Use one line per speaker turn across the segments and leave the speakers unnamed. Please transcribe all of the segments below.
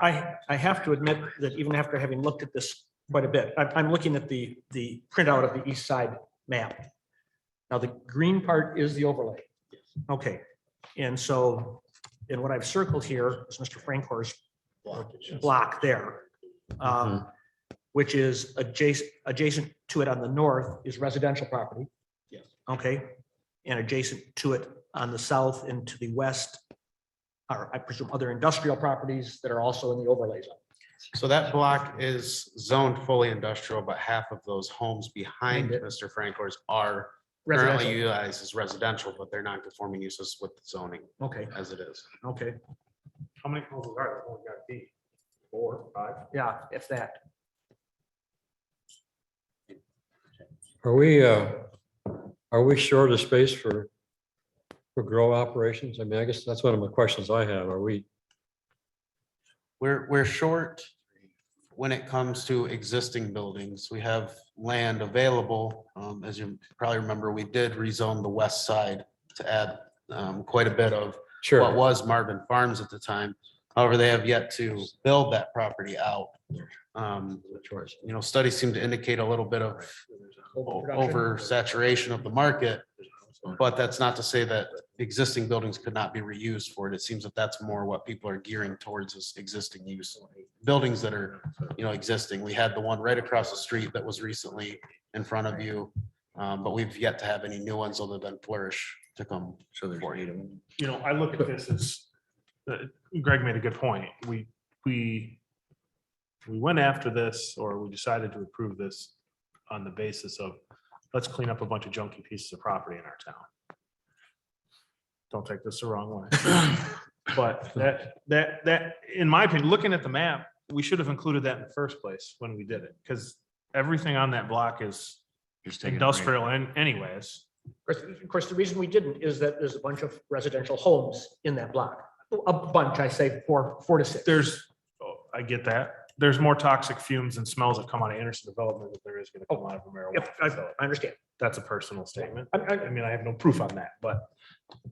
I, I have to admit that even after having looked at this quite a bit, I'm, I'm looking at the, the printout of the east side map. Now, the green part is the overlay. Okay, and so, and what I've circled here is Mr. Frankor's block there. um, Which is adjacent, adjacent to it on the north is residential property.
Yes.
Okay, and adjacent to it on the south and to the west are, I presume, other industrial properties that are also in the overlay zone.
So that block is zoned fully industrial, but half of those homes behind
Behind
Mr. Francor's are currently
Residential,
utilized as residential, but they're non-conforming uses with zoning
okay,
as it is.
okay,
How many homes are there? Only got B, four, five?
yeah, if that.
Are we, uh, are we short of space for, for grow operations? I mean, I guess that's one of the questions I have. Are we,
We're, we're short when it comes to existing buildings. We have land available. Um, as you probably remember, we did rezone the west side to add, um, quite a bit of what
sure,
was Marvin Farms at the time. However, they have yet to build that property out. Um, you know, studies seem to indicate a little bit of o- oversaturation of the market. But that's not to say that existing buildings could not be reused for it. It seems that that's more what people are gearing towards is existing use. Buildings that are, you know, existing. We had the one right across the street that was recently in front of you. Um, but we've yet to have any new ones other than Flourish to come. So there's.
You know, I look at this as, uh, Greg made a good point. We, we, we went after this, or we decided to approve this on the basis of, let's clean up a bunch of junky pieces of property in our town. Don't take this the wrong way. But that, that, that, in my opinion, looking at the map, we should have included that in the first place when we did it, because everything on that block is industrial and anyways.
Of course- Of course, the reason we didn't is that there's a bunch of residential homes in that block. A bunch, I say, four, four to six.
there's, oh, I get that. There's more toxic fumes and smells that come out of Anderson development than there is gonna come out of a
Oh, Yep,
marijuana.
I
facility.
I understand.
That's a personal statement.
I- I-
I mean, I have no proof on that, but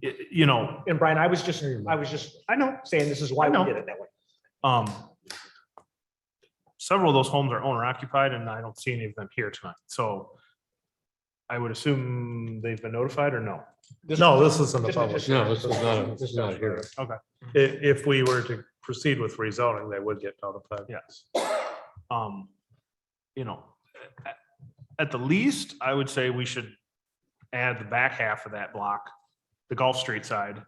it, you know,
And Brian, I was just, I was just
I know,
saying this is why
I
we
know.
did it that way.
um, several of those homes are owner occupied and I don't see any of them here tonight. So I would assume they've been notified or no?
No, this isn't a
This is
public.
just-
no, this is not, a- this is not a hearing.
I- If, we were to proceed with rezoning, they would get notified.
Yes. Um, you know, at- at the least, I would say we should add the back half of that block, the Gulf Street side,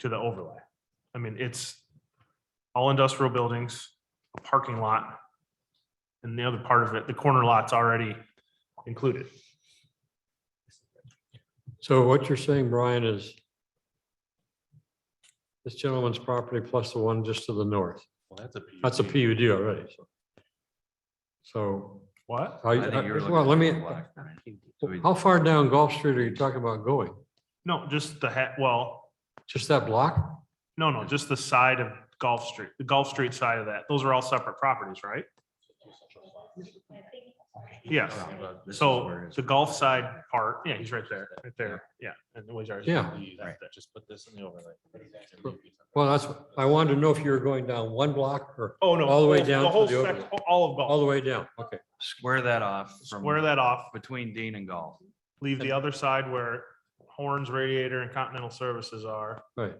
to the overlay. I mean, it's all industrial buildings, a parking lot, and the other part of it, the corner lot's already included.
So what you're saying, Brian, is this gentleman's property plus the one just to the north, that's a PUD already. so. So,
What?
are you- uh, well, let me, how far down Gulf Street are you talking about going?
No, just the hat, well,
Just that block?
no, no, just the side of Gulf Street, the Gulf Street side of that. Those are all separate properties, right? Yes. So the Gulf side part, yeah, he's right there, right there, yeah. and the ways are-
Yeah.
That's there.
Just put this in the overlay.
Well, that's, I wanted to know if you were going down one block or
Oh, no.
All the way
whole-
down to
whole
the
sec-
overlay.
All of
all
Gulf,
the way down. Okay.
Square that off from
square that off,
between Dean and Golf.
leave the other side where Horns Radiator and Continental Services are
Right.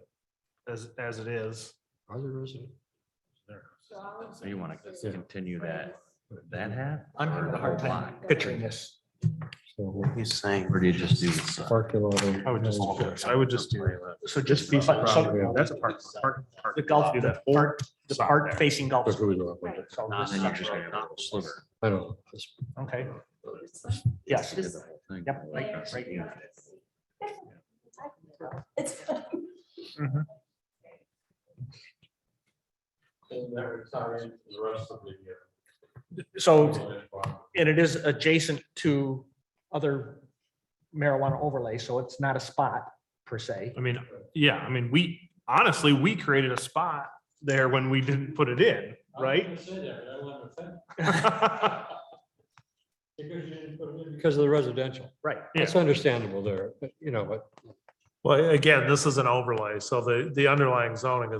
as, as it is.
Are there residents?
So you want to continue that, that half?
I'm
or
having
the
a hard
whole
time
block?
picturing this.
So
He's saying.
Or do you just do this? side?
parking lot.
I would just, I would just do.
So just
piece of
so-
property.
That's a park, park, park.
The Gulf,
Do
the
that whole
part, the
side
part
there.
facing Gulf.
Look who's up.
So
Nah,
this
then
is-
you're just gonna have a sliver.
I don't know. It's-
Okay, yes. Yep, right- right here.
It's.
So, and it is adjacent to other marijuana overlay, so it's not a spot per se.
I mean, yeah, I mean, we, honestly, we created a spot there when we didn't put it in, right?
Because of the residential.
Right.
That's understandable there, but you know, but
Well, again, this is an overlay, so the, the underlying zoning is